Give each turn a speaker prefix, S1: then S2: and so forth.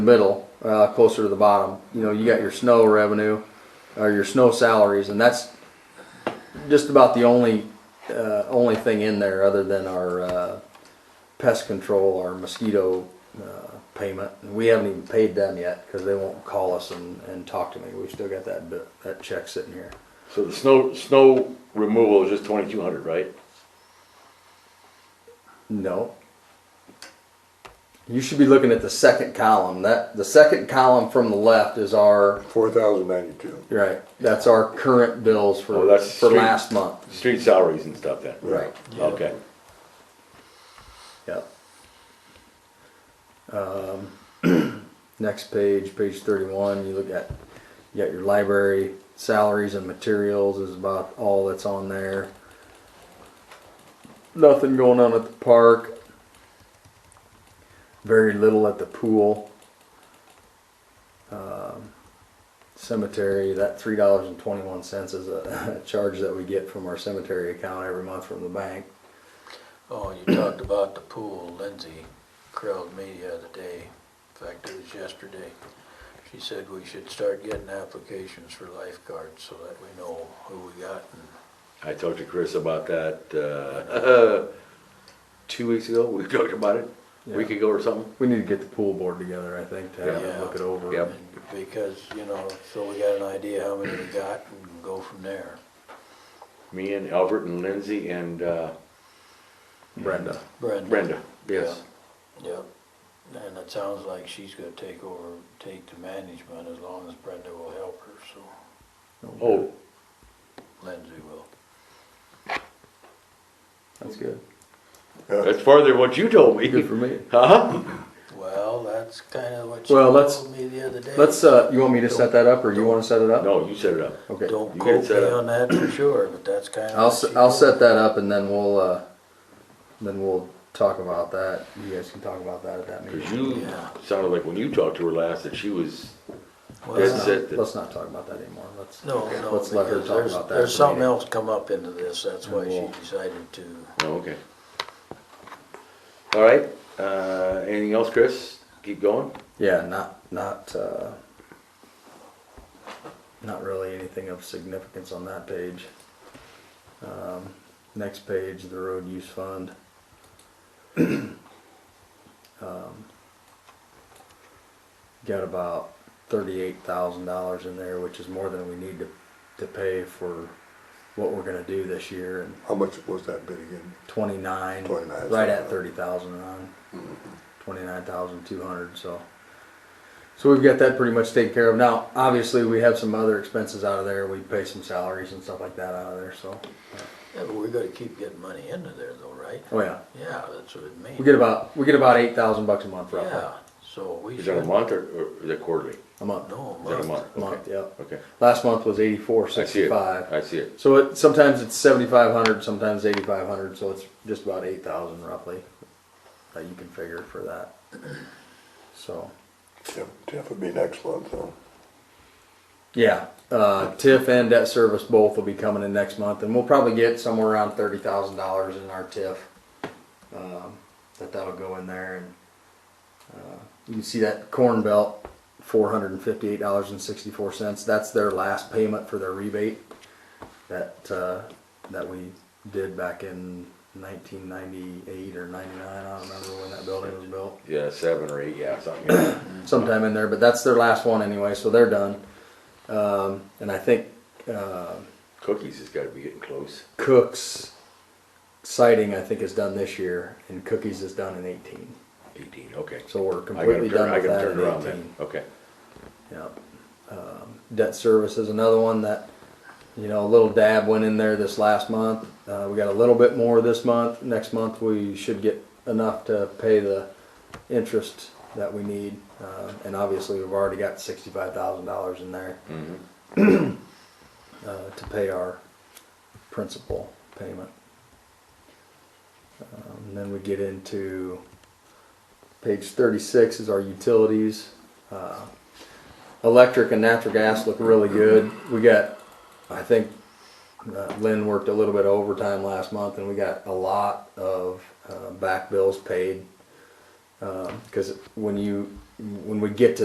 S1: middle, uh, closer to the bottom. You know, you got your snow revenue or your snow salaries, and that's just about the only uh, only thing in there other than our uh, pest control, our mosquito uh, payment. And we haven't even paid them yet because they won't call us and, and talk to me. We've still got that bit, that check sitting here.
S2: So the snow, snow removal is just twenty-two hundred, right?
S1: No. You should be looking at the second column. That the second column from the left is our
S3: Four thousand ninety-two.
S1: Right, that's our current bills
S2: Oh,
S1: for,
S2: that's
S1: for
S2: street.
S1: last month.
S2: Street salaries and stuff then?
S1: Right.
S2: Okay,
S1: Yep. Um, Next page, page thirty-one, you look at, you got your library, salaries and materials is about all that's on there. Nothing going on at the park. Very little at the pool. Um, Cemetery, that three dollars and twenty-one cents is a charge that we get from our cemetery account every month from the bank.
S4: Oh, you talked about the pool, Lindsay Crowd Media the day, in fact, it was yesterday. She said we should start getting applications for lifeguards so that we know who we got and
S2: I talked to Chris about that, uh, two weeks ago, we talked about it, a week
S1: Yeah.
S2: ago or something.
S1: We need to get the pool board together, I think, to have them
S4: Yeah.
S1: look it over.
S2: Yep.
S4: because, you know, so we got an idea how many we got and go from there.
S2: Me and Albert and Lindsay and, uh,
S1: Brenda.
S4: Brenda.
S2: Brenda, yes.
S4: Yep, and it sounds like she's gonna take over, take the management as long as Brenda will help her, so
S2: Oh,
S4: Lindsay will.
S1: That's good.
S2: that's farther than what you told me.
S1: Good for me.
S2: Huh?
S4: Well, that's kinda what she
S1: Well, let's-
S4: told me the other day.
S1: Let's, uh, you want me to set that up or you wanna set it up?
S2: No, you set it up.
S1: Okay.
S4: Don't
S2: You get
S4: quote
S2: it
S4: me
S2: set up.
S4: on that for sure, but that's kind of.
S1: I'll, s- I'll set that up and then we'll, uh, then we'll talk about that. You guys can talk about that at that
S2: Cause
S1: meeting.
S2: you
S4: Yeah.
S2: sounded like when you talked to her last that she was, that's it.
S1: Let's not talk about that anymore. Let's,
S4: No, no,
S1: let's let her
S4: because
S1: talk
S4: there's,
S1: about that at
S4: there's
S1: the
S4: something
S1: meeting.
S4: else come up into this, that's why she
S1: Well-
S4: decided to.
S2: oh, okay. All right, uh, anything else, Chris? Keep going?
S1: yeah, not, not, uh, not really anything of significance on that page. Um, next page, the road use fund. Um, Got about thirty-eight thousand dollars in there, which is more than we need to, to pay for what we're gonna do this year and
S3: How much was that bid again?
S1: twenty-nine,
S3: 29,
S1: right
S3: something.
S1: at thirty thousand on, twenty-nine thousand two hundred, so. So we've got that pretty much taken care of. Now, obviously, we have some other expenses out of there. We pay some salaries and stuff like that out of there, so.
S4: Yeah, but we're gonna keep getting money into there though, right?
S1: Oh, yeah.
S4: Yeah, that's what it means.
S1: We get about, we get about eight thousand bucks a month roughly,
S4: Yeah, so we
S2: Is that
S4: should.
S2: a month or, or is it quarterly?
S1: a month.
S4: No,
S2: Is that a month?
S1: Month,
S2: Okay.
S1: yep.
S2: Okay.
S1: Last month was eighty-four
S2: I see it.
S1: sixty-five.
S2: I see it.
S1: So it, sometimes it's seventy-five hundred, sometimes eighty-five hundred, so it's just about eight thousand roughly that you can figure for that. So.
S3: Jeff, Jeff would be next month, so.
S1: Yeah, uh, TIF and debt service both will be coming in next month, and we'll probably get somewhere around thirty thousand dollars in our TIF. Um, that that'll go in there, and uh, you can see that Corn Belt, four hundred and fifty-eight dollars and sixty-four cents. That's their last payment for their rebate that uh, that we did back in nineteen ninety-eight or ninety-nine. I don't remember when that building was built
S2: Yeah, seven or eight, yeah, something. yeah.
S1: sometime in there, but that's their last one anyway, so they're done. Um, and I think uh,
S2: Cookies has gotta be getting close.
S1: Cook's sighting, I think, is done this year, and Cookies is done in 18.
S2: Eighteen, okay.
S1: So we're
S2: I gotta
S1: completely
S2: turn,
S1: done
S2: I
S1: with
S2: gotta
S1: that
S2: turn it around
S1: in 18.
S2: then, okay.
S1: Yeah. Um, Debt service is another one that, you know, a little dab went in there this last month. Uh, we got a little bit more this month. Next month, we should get enough to pay the interest that we need. Uh, and obviously, we've already got $65,000 in there
S2: Mhm.
S1: uh, to pay our principal payment. Um, and then we get into page 36 is our utilities. Uh, electric and natural gas look really good. We got, I think uh, Lynn worked a little bit of overtime last month and we got a lot of uh, back bills paid. Because Um, when you when we get to